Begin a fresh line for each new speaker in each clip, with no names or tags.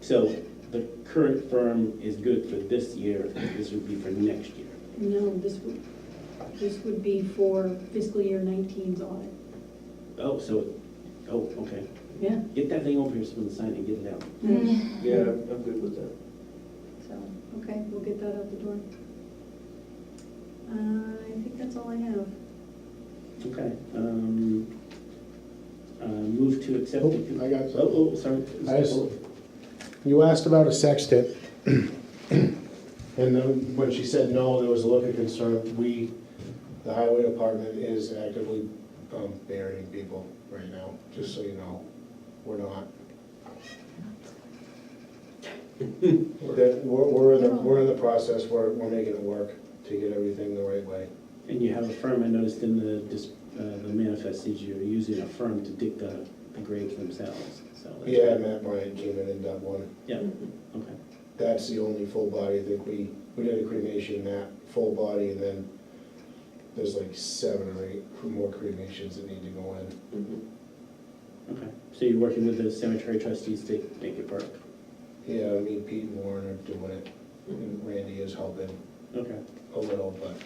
So the current firm is good for this year, this would be for next year.
No, this would, this would be for fiscal year 19's audit.
Oh, so, oh, okay.
Yeah.
Get that thing over here, someone sign it, get it out.
Mm-hmm.
Yeah, I'm I'm good with that.
So, okay, we'll get that out the door. Uh, I think that's all I have.
Okay. um, uh, Move to accept.
Oh,
the-
I got-
Oh, oh, sorry.
I just- You asked about a sextant, and then when she said no, there was a look of concern. We, the highway department is actively um, burying people right now, just so you know. We're not. That, we're, we're in the, we're in the process, we're, we're making it work to get everything the right way.
And you have a firm, I noticed in the, dis- uh, the manifest, is you're using a firm to dig the the graves themselves, so. that's-
Yeah, Matt Bryant came in and done one.
Yeah, okay.
that's the only full body, I think we, we did a cremation, that full body, and then there's like seven or eight more cremations that need to go in.
Mm-hmm.
Okay, so you're working with the cemetery trustees to make it work?
Yeah, I mean, Pete and Warren are doing it, and Randy is helping
Okay,
a little, but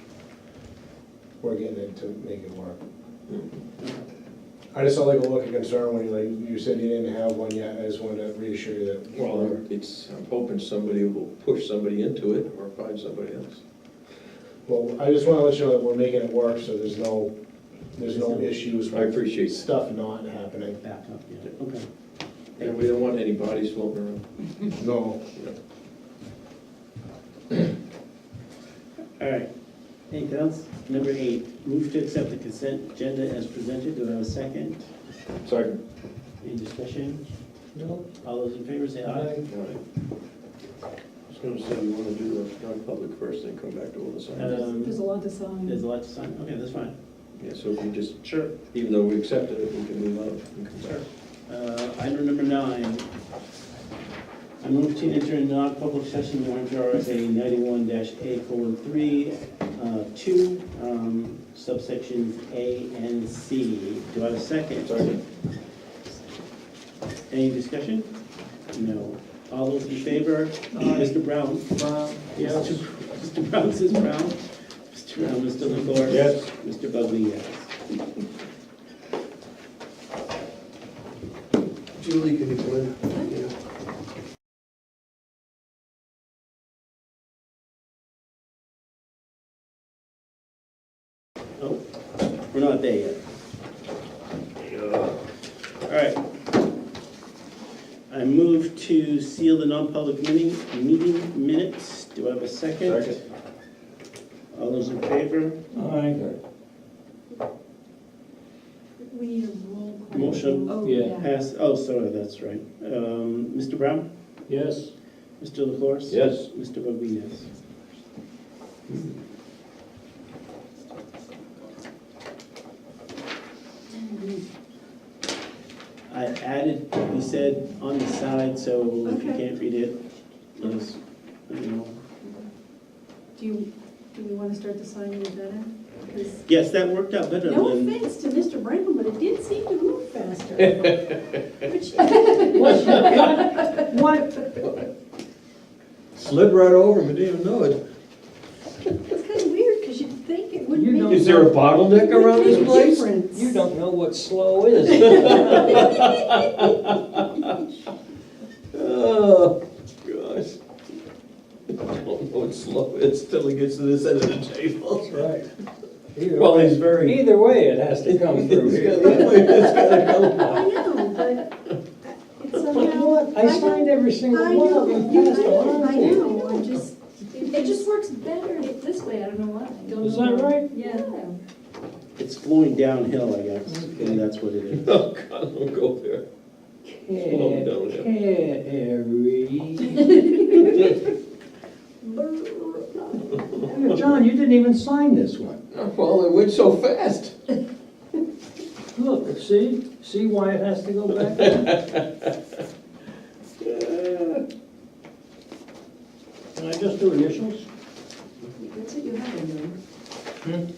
we're getting it to make it work. I just don't like a look of concern when you like, you said you didn't have one yet, I just wanted to reassure you that.
Well, it's, I'm hoping somebody will push somebody into it or find somebody else.
Well, I just wanna let you know that we're making it work, so there's no, there's no issues.
I appreciate that.
Stuff not happening.
back up, yeah, okay.
And we don't want any bodies floating around.
No.
All right, anything else? Number eight, move to accept the consent agenda as presented, do I have a second?
Sorry.
Any discussion?
No.
All those in favor say aye.
All right. I was gonna say, you wanna do the non-public first, then come back to all the signs.
Uh,
Um,
There's there's a lot to
There's a
sign.
lot to sign, okay, that's fine.
Yeah, so if you just,
Sure.
even though we accepted it, we can move on and come back.
Uh, Item number nine, I move to enter a non-public session under RSA ninety-one dash A colon three, uh, two, um, subsections A and C. Do I have a second?
Sorry.
Any discussion? No. All those in favor? Mr. Brown? Yes. Mr. Brown says Brown. uh, Mr. Brown, Mr. LaCour?
Yes.
Mr. Bugley, yes.
Julie, can you come in? Yeah.
Oh, we're not there yet. All right. I move to seal the non-public meeting, meeting minutes. Do I have a second?
Second.
All those in favor?
We need a roll call.
Motion.
Oh,
Yeah.
Pass, oh, sorry, that's right. Um, Mr. Brown?
Yes.
Mr. LaFors?
Yes.
Mr. Bugby, yes. I added, what we said on the side, so if you
Okay.
can't read it, let us, you know.
Do you, do we want to start the signing of that? Because
Yes, that worked out better
No
than.
offense to Mr. Franklin, but it did seem to move faster. Which, what,
Slid right over, but didn't even know it.
it's kind of weird, because you'd think it would
You
make.
don't-
Is there a bottleneck around this place?
Difference.
You don't know what slow is.
Oh, gosh. I don't know what slow is till he gets to this end of the table.
Right.
Well, he's very.
Either way, it has to come through
It's
here.
gotta- it's gotta come
I know, but it's
But you know
somehow.
what? I signed every
I
single one of
know,
them.
you-
passed along
I
to you.
know, I know, I just, it it just works better this way, I don't know why. Don't
Is
know
that
why.
right?
Yeah.
It's flowing downhill, I guess,
Okay.
and that's what it is.
Oh, God, don't go there. Slow down, yeah.
Carry. John, you didn't even sign this one.
Well, it went so fast.
Look, see? See why it has to go back? Can I just do initials?
That's what you have in there.